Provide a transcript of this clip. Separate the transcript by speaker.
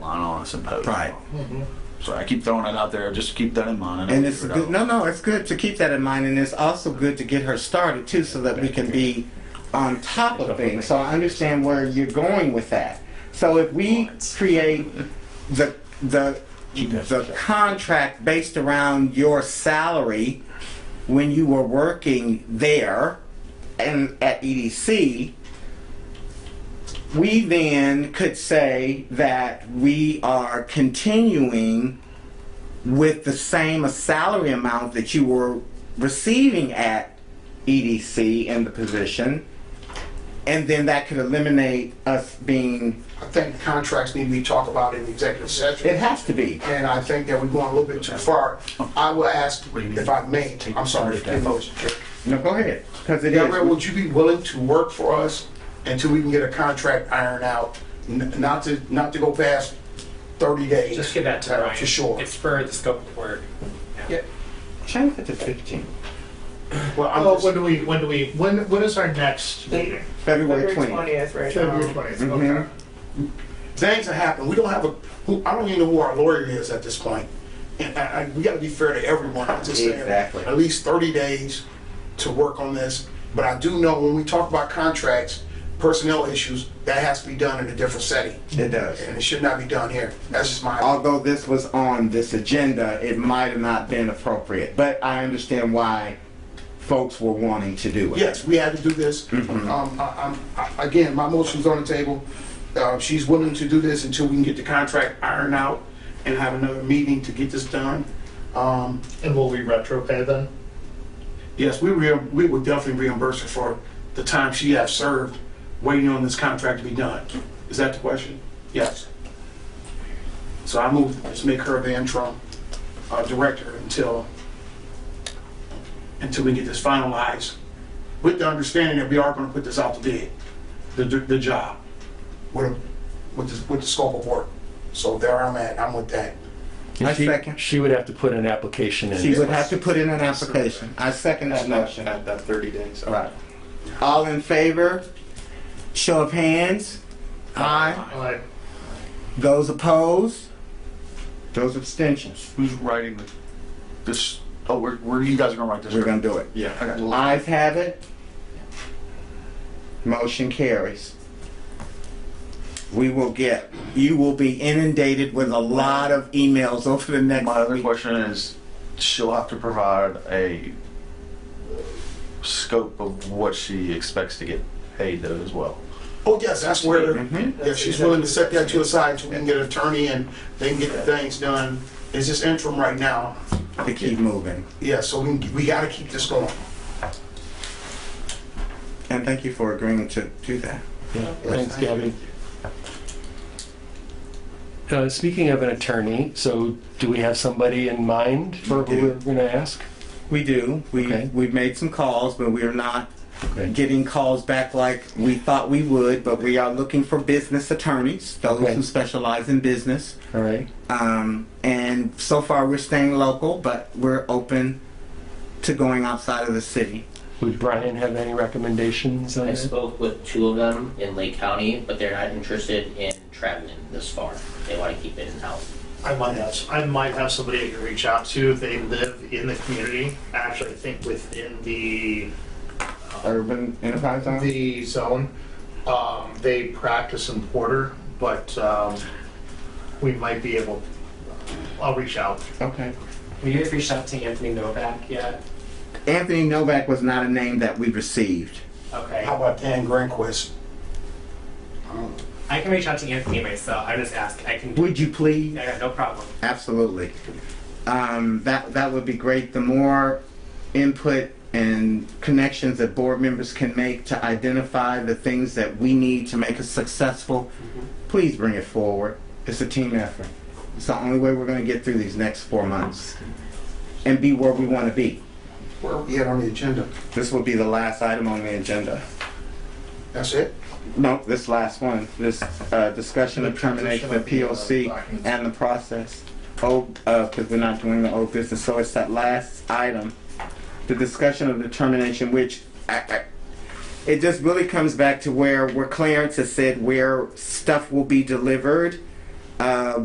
Speaker 1: on a symposium.
Speaker 2: Right.
Speaker 1: Mm-hmm. So I keep throwing it out there. Just keep that in mind. I'll
Speaker 2: And it's
Speaker 1: figure it
Speaker 2: good.
Speaker 1: out.
Speaker 2: No, no, it's good to keep that in mind, and it's also good to get her started too, so that we can be on top of things. So I understand where you're going with that. So if we create the the the contract based around your salary when you were working there and at EDC, we then could say that we are continuing with the same salary amount that you were receiving at EDC in the position, and then that could eliminate us being,
Speaker 3: I think contracts need to be talked about in executive
Speaker 2: it
Speaker 3: session,
Speaker 2: has to be.
Speaker 3: and I think that we're going a little bit too far. I will ask, if I may, I'm sorry, Mr. Motion.
Speaker 2: No, go ahead, because it
Speaker 3: Gabrielle,
Speaker 2: is.
Speaker 3: would you be willing to work for us until we can get a contract ironed out? N- Not to, not to go past 30 days.
Speaker 4: Just give that to
Speaker 3: uh,
Speaker 4: Ryan.
Speaker 3: For sure.
Speaker 4: It spurred the scope of work.
Speaker 2: Change it to fifteen.
Speaker 3: Well, I'm
Speaker 5: Well,
Speaker 3: just-
Speaker 5: when do we, when do we, when, when is our next meeting?
Speaker 2: February
Speaker 6: February
Speaker 2: twentieth.
Speaker 6: twentieth, right now.
Speaker 5: February twentieth,
Speaker 2: Mhm.
Speaker 5: okay.
Speaker 3: things that happen. We don't have a, who, I don't even know who our lawyer is at this point. And I, I, we gotta be fair to everyone. I'm just saying,
Speaker 2: Exactly.
Speaker 3: at least thirty days to work on this. But I do know when we talk about contracts, personnel issues, that has to be done in a different setting.
Speaker 2: It does.
Speaker 3: And it should not be done here. That's just my,
Speaker 2: Although this was on this agenda, it might have not been appropriate, but I understand why folks were wanting to do it.
Speaker 3: yes, we had to do this. Um, I, I'm, I- again, my motion's on the table. Uh, she's willing to do this until we can get the contract ironed out and have another meeting to get this done. Um,
Speaker 5: And will we retro pay then?
Speaker 3: Yes, we re, we would definitely reimburse her for the time she has served, waiting on this contract to be done. Is that the question? Yes. So I move, let's make her the interim uh, director until, until we get this finalized, with the understanding that we are gonna put this out to bid, the, the job, with, with, the- with the scope of work. So there I'm at, I'm with that.
Speaker 7: And
Speaker 2: I
Speaker 7: she-
Speaker 2: second.
Speaker 7: She would have to put an application in.
Speaker 2: She would have to put in an application. I second that motion.
Speaker 8: At that 30 days.
Speaker 2: Right. All in favor? Show of hands. Aye.
Speaker 5: Like,
Speaker 2: Those opposed? Those abstentions.
Speaker 1: Who's writing the, this? Oh, we're, we're you guys are gonna write this.
Speaker 2: We're gonna do it.
Speaker 8: Yeah.
Speaker 1: I got a little-
Speaker 2: Ayes have it. Motion carries. We will get, you will be inundated with a lot of emails over the next
Speaker 1: My other
Speaker 2: week.
Speaker 1: question is, she'll have to provide a scope of what she expects to get paid though as well.
Speaker 3: Oh, yes, that's where,
Speaker 2: Mhm.
Speaker 3: if she's willing to set that to the side until we can get an attorney and they can get the things done. It's just interim right now.
Speaker 2: To keep moving.
Speaker 3: Yeah, so we, we gotta keep this going.
Speaker 2: And thank you for agreeing to do that.
Speaker 7: Yeah,
Speaker 6: Oh.
Speaker 7: Thanks, Gabby. Uh, Speaking of an attorney, so do we have somebody in mind for who we're going to ask?
Speaker 2: We do. We,
Speaker 7: Okay.
Speaker 2: we've made some calls, but we are not
Speaker 7: Okay.
Speaker 2: getting calls back like we thought we would, but we are looking for business attorneys, those
Speaker 7: Okay.
Speaker 2: who specialize in business.
Speaker 7: All right,
Speaker 2: Um, and so far, we're staying local, but we're open to going outside of the city.
Speaker 7: would Brian have any recommendations on
Speaker 9: I
Speaker 7: that?
Speaker 9: spoke with two of them in Lake County, but they're not interested in traveling this far. They want to keep it in-house.
Speaker 5: I might have, I might have somebody I can reach out to if they live in the community, actually, I think within the,
Speaker 2: Urban Enterprise Zone?
Speaker 5: the zone. Um, they practice in Porter, but, um, we might be able, I'll reach out.
Speaker 2: Okay.
Speaker 4: Have you guys reached out to Anthony Novak yet?
Speaker 2: Anthony Novak was not a name that we received.
Speaker 4: Okay.
Speaker 3: How about Dan Grandquist?
Speaker 4: I can reach out to Anthony myself. I'm just asking. I can.
Speaker 2: Would you please?
Speaker 4: I got no problem.
Speaker 2: Absolutely. Um, that, that would be great. The more input and connections that board members can make to identify the things that we need to make us successful, please bring it forward. It's a team effort. It's the only way we're gonna get through these next four months and be where we wanna be.
Speaker 3: Where are we at on the agenda?
Speaker 2: This will be the last item on the agenda.
Speaker 3: That's it?
Speaker 2: No, this last one, this, uh, discussion of termination of POC and the process. Oh, uh, cause we're not doing the old business, so it's that last item. The discussion of the termination, which I, I, it just really comes back to where, where Clarence has said where stuff will be delivered. Uh,